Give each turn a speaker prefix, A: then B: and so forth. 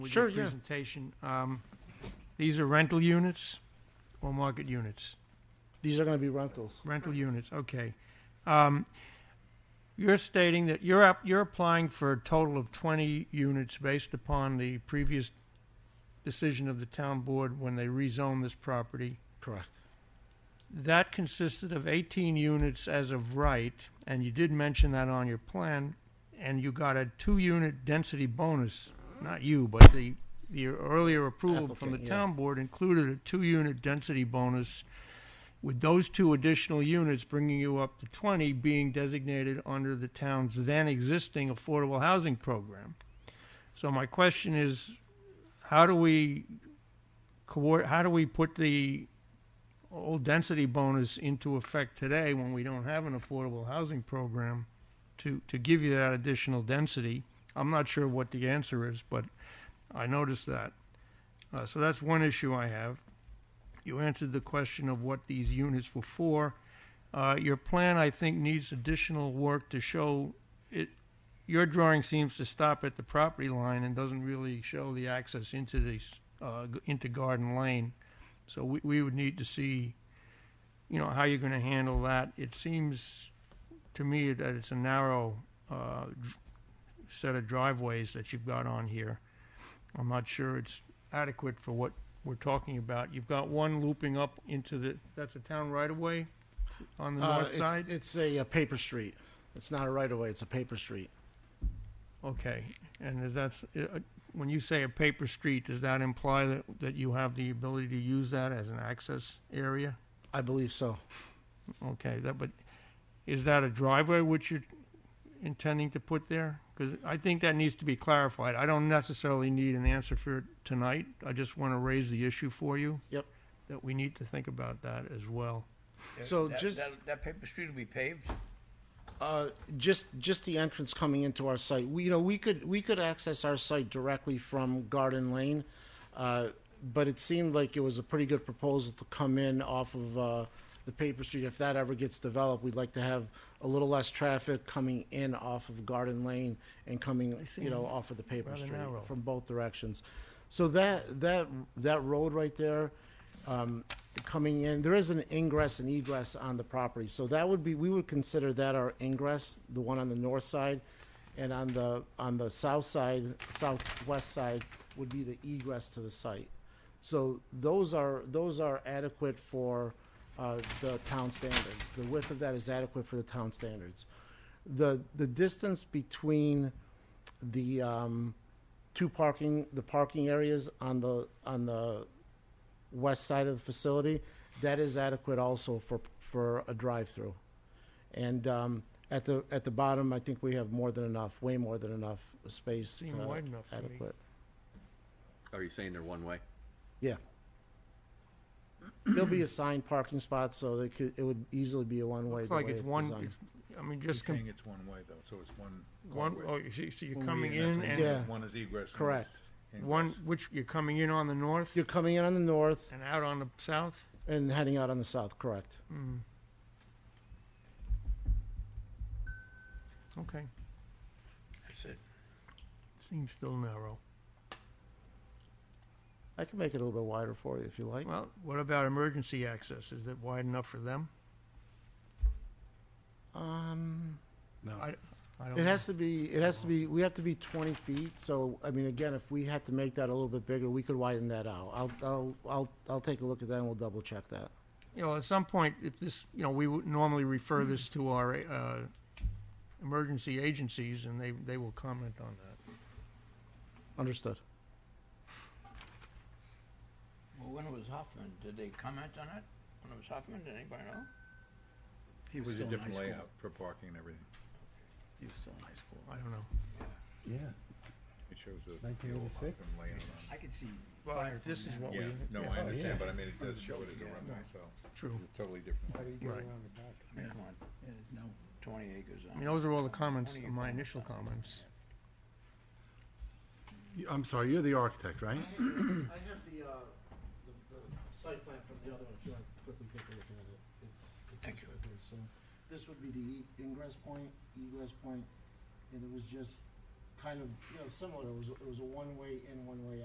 A: with your
B: Sure, yeah.
A: presentation. Um, These are rental units or market units?
B: These are going to be rentals.
A: Rental units, okay. Um, You're stating that you're up, you're applying for a total of 20 units based upon the previous decision of the town board when they rezoned this property.
B: Correct.
A: That consisted of 18 units as of right, and you did mention that on your plan, and you got a two-unit density bonus, not you, but the, the earlier approval from the
B: Applicant, yeah.
A: town board included a two-unit density bonus with those two additional units bringing you up to 20 being designated under the town's then-existing affordable housing program. So my question is, how do we, coor- how do we put the old density bonus into effect today when we don't have an affordable housing program to, to give you that additional density? I'm not sure what the answer is, but I noticed that. Uh, so that's one issue I have. You answered the question of what these units were for. Uh, your plan, I think, needs additional work to show it. Your drawing seems to stop at the property line and doesn't really show the access into these, uh, g- into Garden Lane. So we, we would need to see, you know, how you're gonna handle that. It seems to me that it's a narrow, uh, dr- set of driveways that you've got on here. I'm not sure it's adequate for what we're talking about. You've got one looping up into the, that's a town right-of-way on the
B: Uh,
A: north
B: it's-
A: side?
B: It's a uh, paper street. It's not a right-of-way, it's a paper street.
A: Okay, and is that, uh, when you say a paper street, does that imply that, that you have the ability to use that as an access area?
B: I believe so.
A: Okay, that, but is that a driveway which you're intending to put there? Because I think that needs to be clarified. I don't necessarily need an answer for it tonight. I just want to raise the issue for you.
B: Yep.
A: That we need to think about that as well.
C: Yeah,
B: So
C: that-
B: just-
C: That that paper street will be paved?
B: Uh, Just, just the entrance coming into our site. We, you know, we could, we could access our site directly from Garden Lane, uh, but it seemed like it was a pretty good proposal to come in off of uh, the paper street. If that ever gets developed, we'd like to have a little less traffic coming in off of Garden Lane and coming, you know, off of the paper
A: Rather
B: street
A: narrow.
B: from both directions. So that, that, that road right there, um, coming in, there is an ingress and egress on the property. So that would be, we would consider that our ingress, the one on the north side. And on the, on the south side, southwest side would be the egress to the site. So those are, those are adequate for, uh, the town standards. The width of that is adequate for the town standards. The, the distance between the, um, two parking, the parking areas on the, on the west side of the facility, that is adequate also for, for a drive-through. And um, at the, at the bottom, I think we have more than enough, way more than enough space.
A: Seem
B: uh,
A: wide enough to me.
B: Adequate.
D: Are you saying they're one way?
B: Yeah. There'll be assigned parking spots, so they could, it would easily be a one-way.
A: It's
B: the
A: like
B: way
A: it's one,
B: designed.
A: it's- I mean,
E: You're
A: just, com-
E: saying it's one way though, so it's one.
A: one,
E: way.
A: oh, you see, so you're
E: One way
A: coming
E: that's
A: in
E: what
A: and
E: you
B: Yeah.
E: said, One is egress. one
B: Correct.
E: is
A: one,
E: ingress.
A: which, you're coming in on the north
B: You're coming in on the north
A: and out on the south?
B: and heading out on the south, correct?
A: Mm. Okay,
C: That's it.
A: seems still narrow.
B: I can make it a little bit wider for you if you like.
A: Well, what about emergency access? Is that wide enough for them?
B: Um,
A: I don't know.
B: It has to be, it has to be, we have to be twenty feet, so, I mean, again, if we had to make that a little bit bigger, we could widen that out. I'll, I'll, I'll, I'll take a look at that and we'll double check that.
A: You know, at some point, if this, you know, we would normally refer this to our uh, emergency agencies, and they, they will comment on that.
B: Understood.
C: Well, when it was Hoffman, did they comment on it? When it was Hoffman, did anybody know?
E: It was a
F: Still in
E: different
F: high school.
E: layout for parking and everything.
F: He was still in high school.
A: I don't know.
F: Yeah,
E: It shows the. the old
F: 1986.
E: Hoffman layout on
F: I could see
A: Well,
F: fire.
A: this is what
E: it.
A: we,
E: Yeah,
A: Oh,
E: no,
F: yeah.
E: I
F: Yeah.
E: understand, but I mean, it does show it as a runway, so
A: true.
E: it's totally different.
F: How do you get
A: Right.
F: around the back?
C: I mean, come on,
F: Yeah, there's no.
C: twenty acres.
A: I mean, those are all the comments,
C: Only
A: my
C: comments
A: initial
C: on it.
A: comments.
G: I'm sorry, you're the architect, right?
B: I have the, uh, the, the site plan from the other one, if you want to quickly take a look at it. It's, it's
C: Thank you.
B: right there. So this would be the e- ingress point, egress point, and it was just kind of, you know, similar, it was, it was a one-way in, one-way